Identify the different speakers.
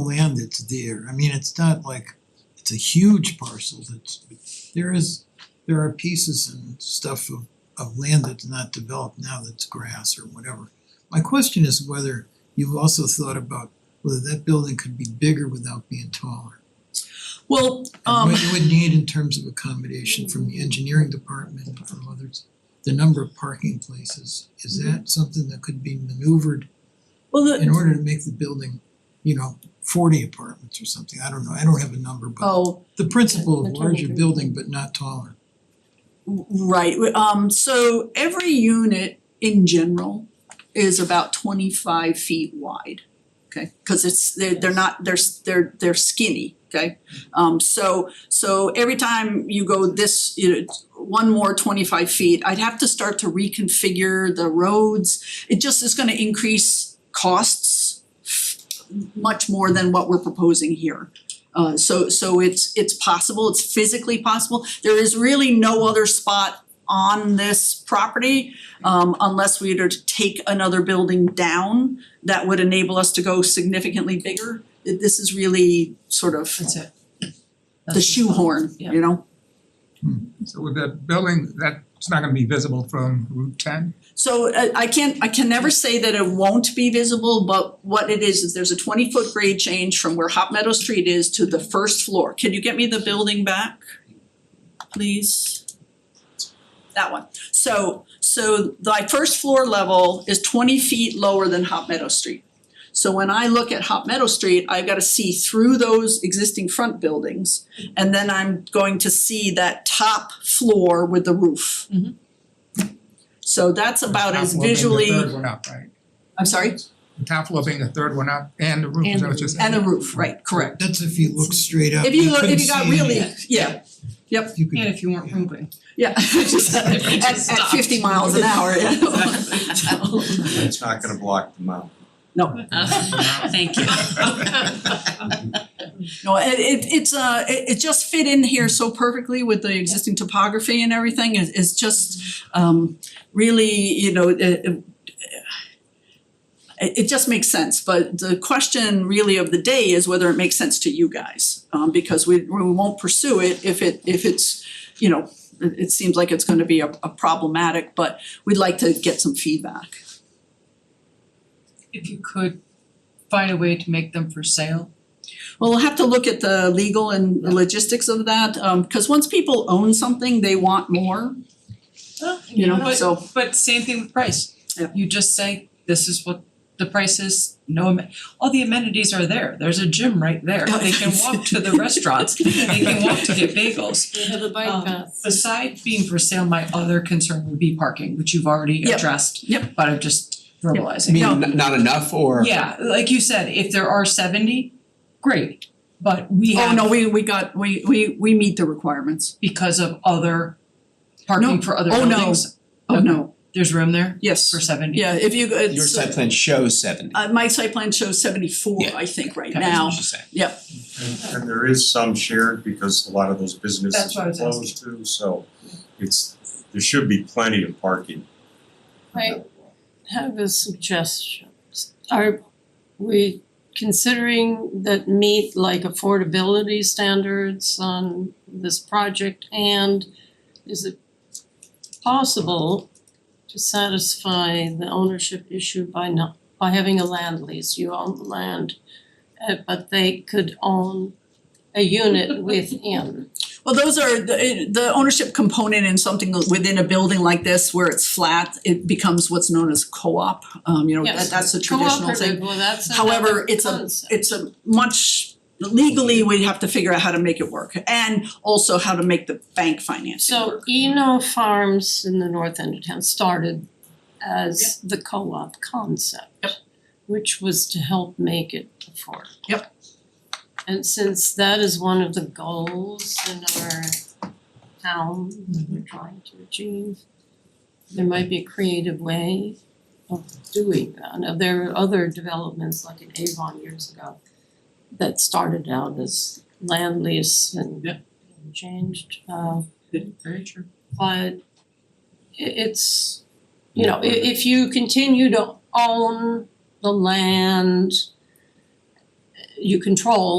Speaker 1: land that's there, I mean, it's not like, it's a huge parcel that's, there is, there are pieces and stuff of of land that's not developed now that's grass or whatever. My question is whether you've also thought about whether that building could be bigger without being taller.
Speaker 2: Well,
Speaker 1: And
Speaker 2: um,
Speaker 1: what you would need in terms of accommodation from the engineering department and from others, the number of parking places, is that something that could be maneuvered
Speaker 2: well,
Speaker 1: in
Speaker 2: the,
Speaker 1: order to make the building, you know, forty apartments or something, I don't know, I don't have a number, but
Speaker 2: oh,
Speaker 1: the principle of
Speaker 3: The total
Speaker 1: larger
Speaker 3: building.
Speaker 1: building but not taller.
Speaker 2: w- right, w- um, so every unit in general is about twenty-five feet wide. Okay, cause it's, they're, they're not, they're, s- they're, they're skinny, okay? Um, so, so every time you go this, you know, it's one more twenty-five feet, I'd have to start to reconfigure the roads. It just is gonna increase costs much more than what we're proposing here. Uh so so it's it's possible, it's physically possible. There is really no other spot on this property um unless we were to take another building down that would enable us to go significantly bigger. It- This is really sort of
Speaker 3: That's it.
Speaker 2: the shoehorn,
Speaker 3: yeah.
Speaker 2: you know?
Speaker 4: So with the building, that's not gonna be visible from Route ten?
Speaker 2: So uh, I I can't, I can never say that it won't be visible, but what it is, is there's a twenty foot grade change from where Hop Meadow Street is to the first floor. Can you get me the building back? Please? That one. So so my first floor level is twenty feet lower than Hop Meadow Street. So when I look at Hop Meadow Street, I've gotta see through those existing front buildings and then I'm going to see that top floor with the roof.
Speaker 3: Mhm.
Speaker 2: So that's about as
Speaker 4: The top floor being the third
Speaker 2: visually,
Speaker 4: one up, right?
Speaker 2: I'm sorry,
Speaker 4: The top floor being the third one up and the
Speaker 3: And
Speaker 4: roof, so
Speaker 3: the
Speaker 4: it's just.
Speaker 2: and the roof, right, correct.
Speaker 1: That's if you look straight up,
Speaker 2: If you
Speaker 1: you
Speaker 2: look,
Speaker 1: couldn't
Speaker 2: if you
Speaker 1: see
Speaker 2: got
Speaker 1: any-
Speaker 2: really, yeah,
Speaker 1: you could-
Speaker 3: And if you weren't moving.
Speaker 2: yeah, just at
Speaker 3: If you
Speaker 2: at
Speaker 3: just stopped.
Speaker 2: fifty miles an hour, yeah.
Speaker 3: Exactly, so.
Speaker 5: It's not gonna block the mountain.
Speaker 2: No,
Speaker 3: Uh, Thank you.
Speaker 2: no, it it it's uh, it it just fit in here so perfectly with the existing topography and everything, it it's just um really, you know, it it it it just makes sense, but the question really of the day is whether it makes sense to you guys. Um because we we won't pursue it if it if it's, you know, it it seems like it's gonna be a a problematic, but we'd like to get some feedback.
Speaker 3: If you could find a way to make them for sale.
Speaker 2: Well, we'll have to look at the legal and the logistics of that, um, cause once people own something, they want more, you know, so.
Speaker 3: But but same thing with price.
Speaker 2: Yeah.
Speaker 3: You just say, this is what the price is, no amen, all the amenities are there, there's a gym right there,
Speaker 2: Oh,
Speaker 3: they can walk to the restaurants, they can walk to get bagels.
Speaker 6: They have a bike
Speaker 3: Um,
Speaker 6: path.
Speaker 3: Beside being for sale, my other concern would be parking, which you've already
Speaker 2: Yep.
Speaker 3: addressed.
Speaker 2: Yep.
Speaker 3: But I'm just verbalizing.
Speaker 7: You mean
Speaker 2: No.
Speaker 7: n- not enough or?
Speaker 3: Yeah, like you said, if there are seventy, great, but we have
Speaker 2: Oh, no, we we got, we we we meet the requirements,
Speaker 3: because of other parking
Speaker 2: No.
Speaker 3: for other
Speaker 2: Oh, no.
Speaker 3: buildings,
Speaker 2: oh no,
Speaker 3: there's room there
Speaker 2: yes,
Speaker 3: for seventy.
Speaker 2: yeah, if you, it's.
Speaker 7: Your site plan shows seventy.
Speaker 2: Uh, my site plan shows seventy four,
Speaker 7: Yeah.
Speaker 2: I think, right
Speaker 7: Okay, that's
Speaker 2: now,
Speaker 7: what she said.
Speaker 5: And and there is some shared because a lot of those
Speaker 3: That's
Speaker 5: businesses
Speaker 3: what I
Speaker 5: are
Speaker 3: was
Speaker 5: closed too, so it's, there should be plenty of parking.
Speaker 6: I have a suggestion. Are we considering that meet like affordability standards on this project? And is it possible to satisfy the ownership issue by not, by having a land lease? You own the land, uh, but they could own a unit within.
Speaker 2: well, those are, the the ownership component in something within a building like this where it's flat, it becomes what's known as co-op, um, you know, that
Speaker 6: Yes.
Speaker 2: that's a traditional thing.
Speaker 6: Cooperative, well, that's
Speaker 2: However,
Speaker 6: another
Speaker 2: it's a-
Speaker 6: concept.
Speaker 2: it's a much legally, we have to figure out how to make it work and also how to make the bank financing work.
Speaker 6: So Eno Farms in the north end of town started as the co-op concept. Which was to help make it affordable.
Speaker 2: Yep.
Speaker 6: And since that is one of the goals in our town that we're trying to achieve, there might be a creative way of doing that. Now, there are other developments like in Avon years ago that started out as land lease and
Speaker 3: Yep.
Speaker 6: and changed uh
Speaker 3: Very true.
Speaker 6: but i- it's, you know, i- if you continue to own the land, you control